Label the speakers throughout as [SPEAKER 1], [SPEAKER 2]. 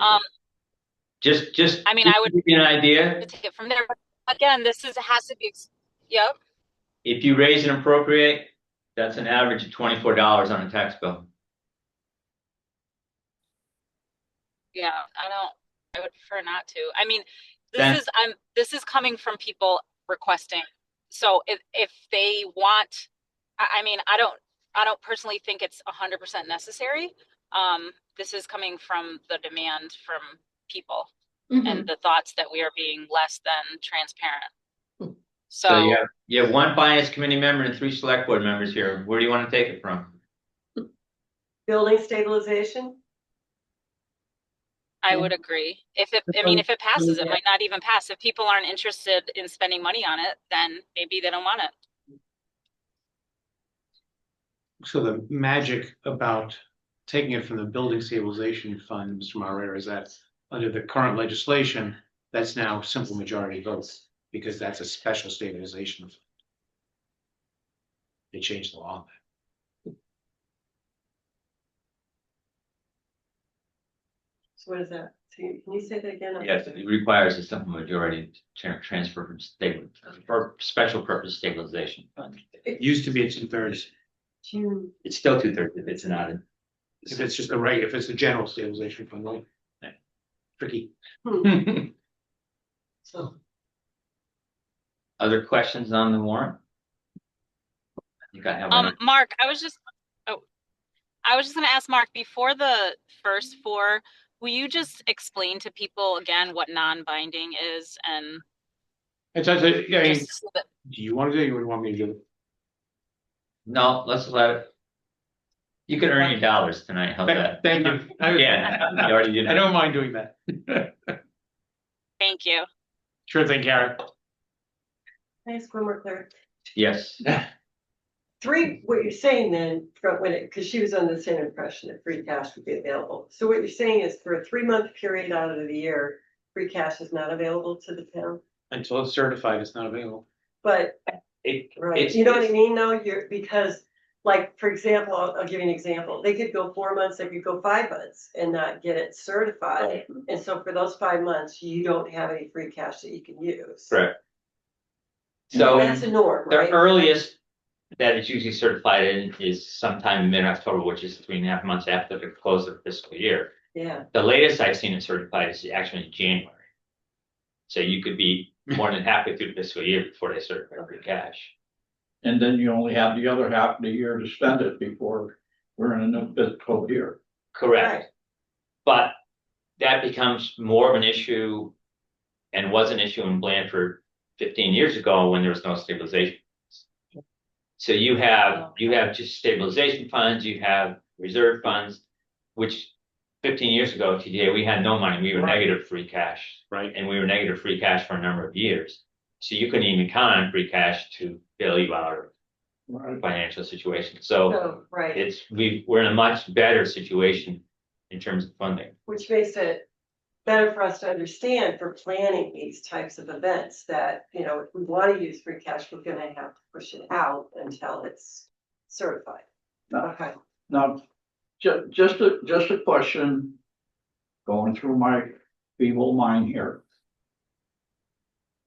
[SPEAKER 1] Um,
[SPEAKER 2] Just, just.
[SPEAKER 1] I mean,
[SPEAKER 2] just
[SPEAKER 1] I
[SPEAKER 2] to
[SPEAKER 1] would-
[SPEAKER 2] Give you an idea,
[SPEAKER 1] to take it from there. Again, this is, has to be, ex- yep,
[SPEAKER 2] if you raise and appropriate, that's an average of twenty-four dollars on a tax bill.
[SPEAKER 1] yeah, I don't, I would prefer not to. I mean,
[SPEAKER 2] Then-
[SPEAKER 1] this is, I'm, this is coming from people requesting. So if, if they want, I, I mean, I don't, I don't personally think it's a hundred percent necessary. Um, this is coming from the demand from people and the thoughts that we are being less than transparent.
[SPEAKER 2] So you
[SPEAKER 1] So,
[SPEAKER 2] have, you have one finance committee member and three select board members here. Where do you want to take it from?
[SPEAKER 3] Building stabilization?
[SPEAKER 1] I would agree. If it, I mean, if it passes, it might not even pass. If people aren't interested in spending money on it, then maybe they don't want it.
[SPEAKER 4] So the magic about taking it from the building stabilization fund, Mr. Moreira, is that under the current legislation, that's now simple majority votes because that's a special stabilization. fund. They changed the law.
[SPEAKER 3] So what is that? So you- Can you say that again?
[SPEAKER 2] Yes, it requires a simple majority to transfer from stable, for special purpose stabilization fund.
[SPEAKER 4] It used to be a two thirds.
[SPEAKER 3] June.
[SPEAKER 2] It's still two thirds if it's not. a-
[SPEAKER 4] If it's just a regular, if it's a general stabilization fund, right? Tricky.
[SPEAKER 3] So
[SPEAKER 2] Other questions on the warrant? I think I have
[SPEAKER 1] Um,
[SPEAKER 2] one.
[SPEAKER 1] Mark, I was just, oh, I was just gonna ask Mark, before the first four, will you just explain to people again what non-binding is and
[SPEAKER 4] It's, it's, I mean,
[SPEAKER 1] just so that
[SPEAKER 4] do you want to do it or you want me to do it?
[SPEAKER 2] No, let's let it. You can earn your dollars tonight. How's that?
[SPEAKER 4] Thank you. I-
[SPEAKER 2] Yeah, you already did.
[SPEAKER 4] I don't mind doing that.
[SPEAKER 1] Thank you.
[SPEAKER 4] Sure thing, Karen.
[SPEAKER 3] can I ask one more clear?
[SPEAKER 2] Yes,
[SPEAKER 3] Three, what you're saying then, from when it, because she was under the same impression that free cash would be available. So what you're saying is for a three-month period out of the year, free cash is not available to the town?
[SPEAKER 4] Until it's certified, it's not available.
[SPEAKER 3] But,
[SPEAKER 2] it,
[SPEAKER 3] right,
[SPEAKER 2] It's-
[SPEAKER 3] you know what I
[SPEAKER 2] it's-
[SPEAKER 3] mean though? You're, because like, for example, I'll, I'll give you an example. They could go four months, they could go five months and not get it certified.
[SPEAKER 2] Right.
[SPEAKER 3] And so for those five months, you don't have any free cash that you can use.
[SPEAKER 2] correct.
[SPEAKER 3] So
[SPEAKER 2] So.
[SPEAKER 3] that's a norm,
[SPEAKER 2] The
[SPEAKER 3] right?
[SPEAKER 2] earliest that it's usually certified in is sometime in mid-October, which is three and a half months after the close of fiscal year.
[SPEAKER 3] Yeah,
[SPEAKER 2] The latest I've seen it certified is actually January. So you could be more than halfway through the fiscal year before they certify your cash.
[SPEAKER 5] And then you only have the other half of the year to spend it before we're in a new fiscal year.
[SPEAKER 2] Correct. But that becomes more of an issue and was an issue in Blanford fifteen years ago when there was no stabilization. So you have, you have just stabilization funds, you have reserve funds, which fifteen years ago, TDA, we had no money, we were
[SPEAKER 4] Right.
[SPEAKER 2] negative free cash.
[SPEAKER 4] Right.
[SPEAKER 2] And we were negative free cash for a number of years. So you couldn't even count on free cash to bail you out of
[SPEAKER 5] Right.
[SPEAKER 2] financial situation. So
[SPEAKER 3] so, right.
[SPEAKER 2] it's, we, we're in a much better situation in terms of funding.
[SPEAKER 3] which makes it better for us to understand for planning these types of events that, you know, if we want to use free cash, we're gonna have to push it out until it's certified.
[SPEAKER 5] No.
[SPEAKER 3] Okay,
[SPEAKER 5] Now, ju- just a, just a question going through my feeble mind here.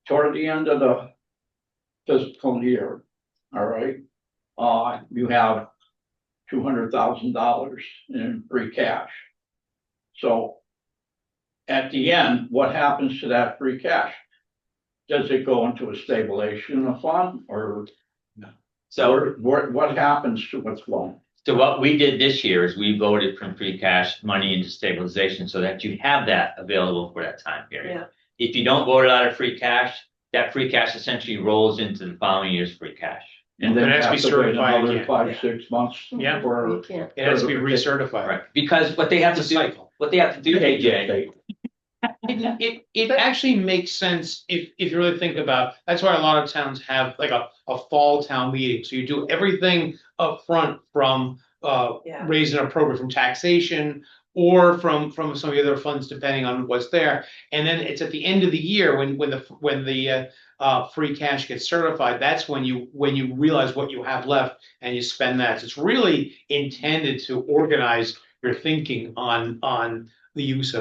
[SPEAKER 5] Toward the end of the fiscal year, all right, uh, you have two hundred thousand dollars in free cash. So at the end, what happens to that free cash? Does it go into a stabilization fund or
[SPEAKER 2] So,
[SPEAKER 5] what, what happens to what's left?
[SPEAKER 2] so what we did this year is we voted from free cash money into stabilization so that you have that available for that time period.
[SPEAKER 3] yeah,
[SPEAKER 2] If you don't vote it out of free cash, that free cash essentially rolls into the following year's free cash.
[SPEAKER 5] And then
[SPEAKER 4] It
[SPEAKER 5] have
[SPEAKER 4] has
[SPEAKER 5] to
[SPEAKER 4] to
[SPEAKER 5] be
[SPEAKER 4] be certified
[SPEAKER 5] certified
[SPEAKER 4] again.
[SPEAKER 5] Five, six months.
[SPEAKER 4] Yeah.
[SPEAKER 5] For.
[SPEAKER 3] you can't.
[SPEAKER 4] It has to be recertified.
[SPEAKER 2] Right, because what they have to do, what they have to do, AJ,
[SPEAKER 4] It, it, it actually makes sense if, if you really think about, that's why a lot of towns have like a, a fall town meeting. So you do everything upfront from, uh,
[SPEAKER 3] Yeah.
[SPEAKER 4] raising appropriate from taxation or from, from some of the other funds, depending on what's there. And then it's at the end of the year when, when the, when the, uh, uh, free cash gets certified, that's when you, when you realize what you have left and you spend that. So It's really intended to organize your thinking on, on the use of